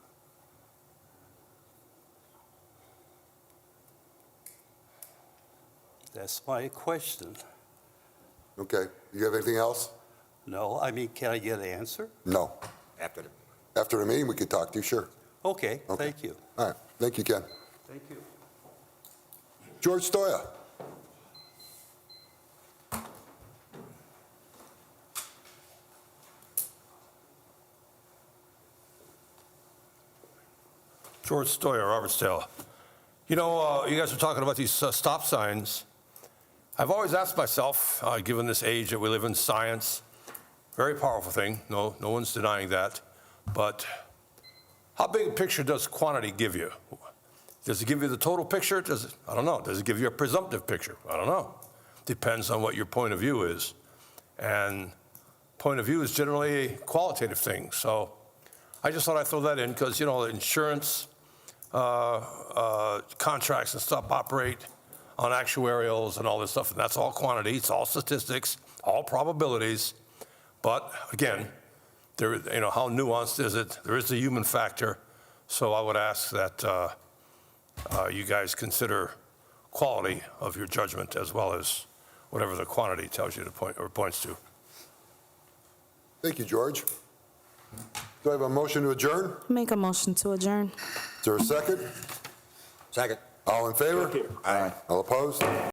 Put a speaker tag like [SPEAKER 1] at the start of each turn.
[SPEAKER 1] That's my question.
[SPEAKER 2] Okay, you have anything else?
[SPEAKER 1] No, I mean, can I get an answer?
[SPEAKER 2] No.
[SPEAKER 3] after the
[SPEAKER 2] After the meeting, we could talk to you, sure.
[SPEAKER 1] Okay,
[SPEAKER 2] Okay.
[SPEAKER 1] thank you.
[SPEAKER 2] All right, thank you, Ken.
[SPEAKER 1] Thank you.
[SPEAKER 2] George Stoya,
[SPEAKER 4] George Stoyer, Robertsdale. You know, uh, you guys were talking about these uh, stop signs. I've always asked myself, uh, given this age that we live in, science, very powerful thing. No, no one's denying that. But how big a picture does quantity give you? Does it give you the total picture? Does it, I don't know. Does it give you a presumptive picture? I don't know. Depends on what your point of view is. And point of view is generally a qualitative thing. So I just thought I'd throw that in because, you know, insurance uh, uh, contracts and stuff operate on actuarials and all this stuff, and that's all quantity, it's all statistics, all probabilities. But again, there, you know, how nuanced is it? There is the human factor. So I would ask that uh, uh, you guys consider quality of your judgment as well as whatever the quantity tells you to point, or points to.
[SPEAKER 2] thank you, George. Do I have a motion to adjourn?
[SPEAKER 5] Make a motion to adjourn.
[SPEAKER 2] Is there a second?
[SPEAKER 3] second.
[SPEAKER 2] All in favor?
[SPEAKER 3] Aye.
[SPEAKER 2] All opposed?